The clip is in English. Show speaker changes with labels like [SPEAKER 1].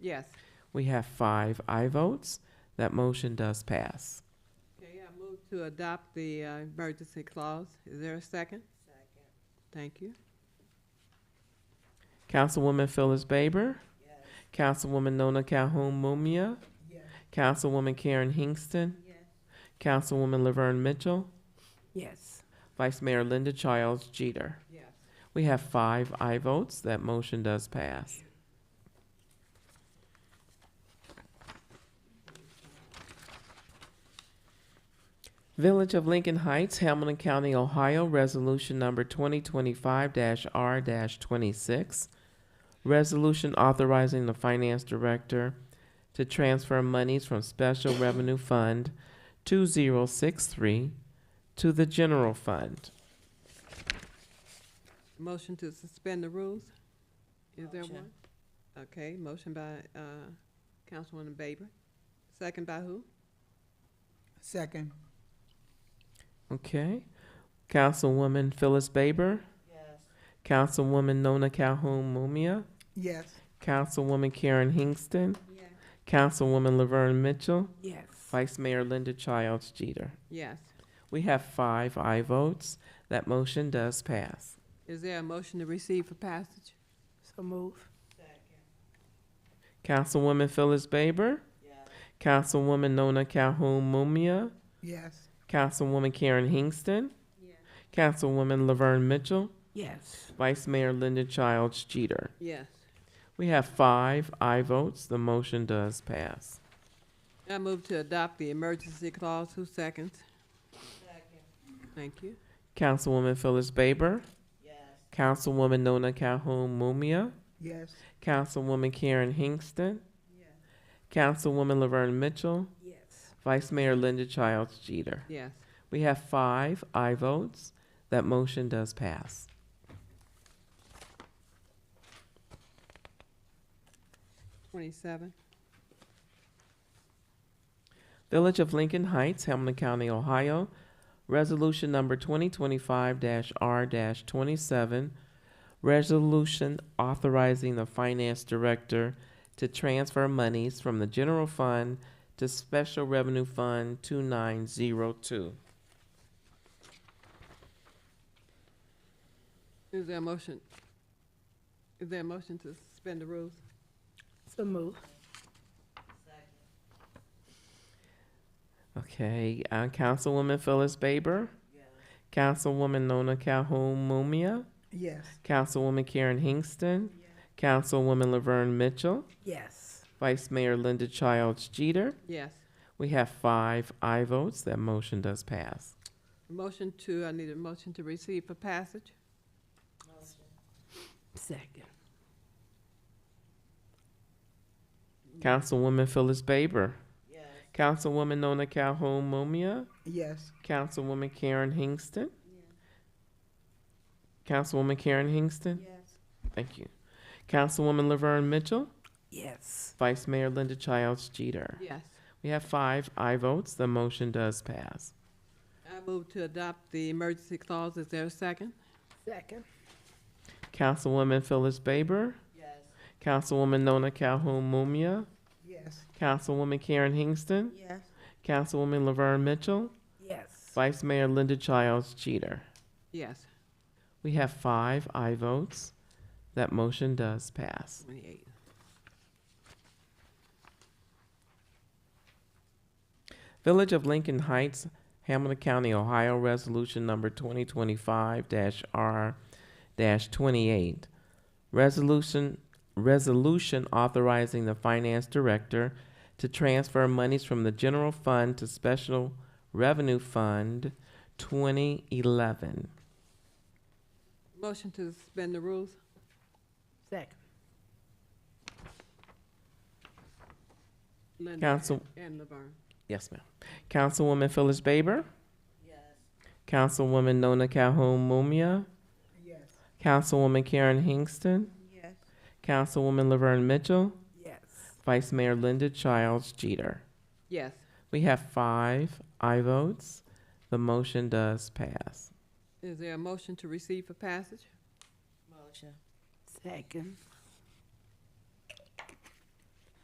[SPEAKER 1] Yes.
[SPEAKER 2] We have five aye votes. That motion does pass.
[SPEAKER 1] Okay, I move to adopt the uh, emergency clause. Is there a second? Second. Thank you.
[SPEAKER 2] Councilwoman Phyllis Baber. Councilwoman Nona Calhoun Mumia. Councilwoman Karen Hingston. Councilwoman Laverne Mitchell.
[SPEAKER 1] Yes.
[SPEAKER 2] Vice Mayor Linda Childs Jeter.
[SPEAKER 1] Yes.
[SPEAKER 2] We have five aye votes. That motion does pass. Village of Lincoln Heights, Hamilton County, Ohio, Resolution Number 2025-R-26. Resolution authorizing the finance director to transfer monies from Special Revenue Fund 2063 to the general fund.
[SPEAKER 1] Motion to suspend the rules? Is there
[SPEAKER 3] Motion.
[SPEAKER 1] one? Okay, motion by uh, Councilwoman Baber. Second by who?
[SPEAKER 3] Second.
[SPEAKER 2] Okay. Councilwoman Phyllis Baber. Councilwoman Nona Calhoun Mumia.
[SPEAKER 3] Yes.
[SPEAKER 2] Councilwoman Karen Hingston.
[SPEAKER 1] Yes.
[SPEAKER 2] Councilwoman Laverne Mitchell.
[SPEAKER 1] Yes.
[SPEAKER 2] Vice Mayor Linda Childs Jeter.
[SPEAKER 1] Yes.
[SPEAKER 2] We have five aye votes. That motion does pass.
[SPEAKER 1] Is there a motion to receive for passage?
[SPEAKER 3] So move.
[SPEAKER 2] Councilwoman Phyllis Baber. Councilwoman Nona Calhoun Mumia.
[SPEAKER 3] Yes.
[SPEAKER 2] Councilwoman Karen Hingston. Councilwoman Laverne Mitchell.
[SPEAKER 3] Yes.
[SPEAKER 2] Vice Mayor Linda Childs Jeter.
[SPEAKER 1] Yes.
[SPEAKER 2] We have five aye votes. The motion does pass.
[SPEAKER 1] I move to adopt the emergency clause. Who seconds? Thank you.
[SPEAKER 2] Councilwoman Phyllis Baber. Councilwoman Nona Calhoun Mumia.
[SPEAKER 3] Yes.
[SPEAKER 2] Councilwoman Karen Hingston. Councilwoman Laverne Mitchell.
[SPEAKER 3] Yes.
[SPEAKER 2] Vice Mayor Linda Childs Jeter.
[SPEAKER 1] Yes.
[SPEAKER 2] We have five aye votes. That motion does pass.
[SPEAKER 1] Twenty-seven.
[SPEAKER 2] Village of Lincoln Heights, Hamilton County, Ohio. Resolution number 2025-R-27. Resolution authorizing the finance director to transfer monies from the general fund to Special Revenue Fund 2902.
[SPEAKER 1] Is there a motion? Is there a motion to suspend the rules?
[SPEAKER 3] So move.
[SPEAKER 2] Okay, uh, Councilwoman Phyllis Baber. Councilwoman Nona Calhoun Mumia.
[SPEAKER 3] Yes.
[SPEAKER 2] Councilwoman Karen Hingston. Councilwoman Laverne Mitchell.
[SPEAKER 3] Yes.
[SPEAKER 2] Vice Mayor Linda Childs Jeter.
[SPEAKER 1] Yes.
[SPEAKER 2] We have five aye votes. That motion does pass.
[SPEAKER 1] Motion to, I need a motion to receive for passage?
[SPEAKER 3] Second.
[SPEAKER 2] Councilwoman Phyllis Baber. Councilwoman Nona Calhoun Mumia.
[SPEAKER 3] Yes.
[SPEAKER 2] Councilwoman Karen Hingston. Councilwoman Karen Hingston.
[SPEAKER 3] Yes.
[SPEAKER 2] Thank you. Councilwoman Laverne Mitchell.
[SPEAKER 3] Yes.
[SPEAKER 2] Vice Mayor Linda Childs Jeter.
[SPEAKER 1] Yes.
[SPEAKER 2] We have five aye votes. The motion does pass.
[SPEAKER 1] I move to adopt the emergency clause. Is there a second?
[SPEAKER 3] Second.
[SPEAKER 2] Councilwoman Phyllis Baber. Councilwoman Nona Calhoun Mumia.
[SPEAKER 3] Yes.
[SPEAKER 2] Councilwoman Karen Hingston.
[SPEAKER 3] Yes.
[SPEAKER 2] Councilwoman Laverne Mitchell.
[SPEAKER 3] Yes.
[SPEAKER 2] Vice Mayor Linda Childs Jeter.
[SPEAKER 1] Yes.
[SPEAKER 2] We have five aye votes. That motion does pass.
[SPEAKER 1] Twenty-eight.
[SPEAKER 2] Village of Lincoln Heights, Hamilton County, Ohio, Resolution Number 2025-R-28. Resolution, resolution authorizing the finance director to transfer monies from the general fund to special revenue fund 2011.
[SPEAKER 1] Motion to suspend the rules?
[SPEAKER 3] Second.
[SPEAKER 1] Linda
[SPEAKER 2] Council,
[SPEAKER 1] And Laverne.
[SPEAKER 2] yes, ma'am. Councilwoman Phyllis Baber. Councilwoman Nona Calhoun Mumia.
[SPEAKER 3] Yes.
[SPEAKER 2] Councilwoman Karen Hingston.
[SPEAKER 3] Yes.
[SPEAKER 2] Councilwoman Laverne Mitchell.
[SPEAKER 3] Yes.
[SPEAKER 2] Vice Mayor Linda Childs Jeter.
[SPEAKER 1] Yes.
[SPEAKER 2] We have five aye votes. The motion does pass.
[SPEAKER 1] Is there a motion to receive for passage?
[SPEAKER 3] Motion. Second.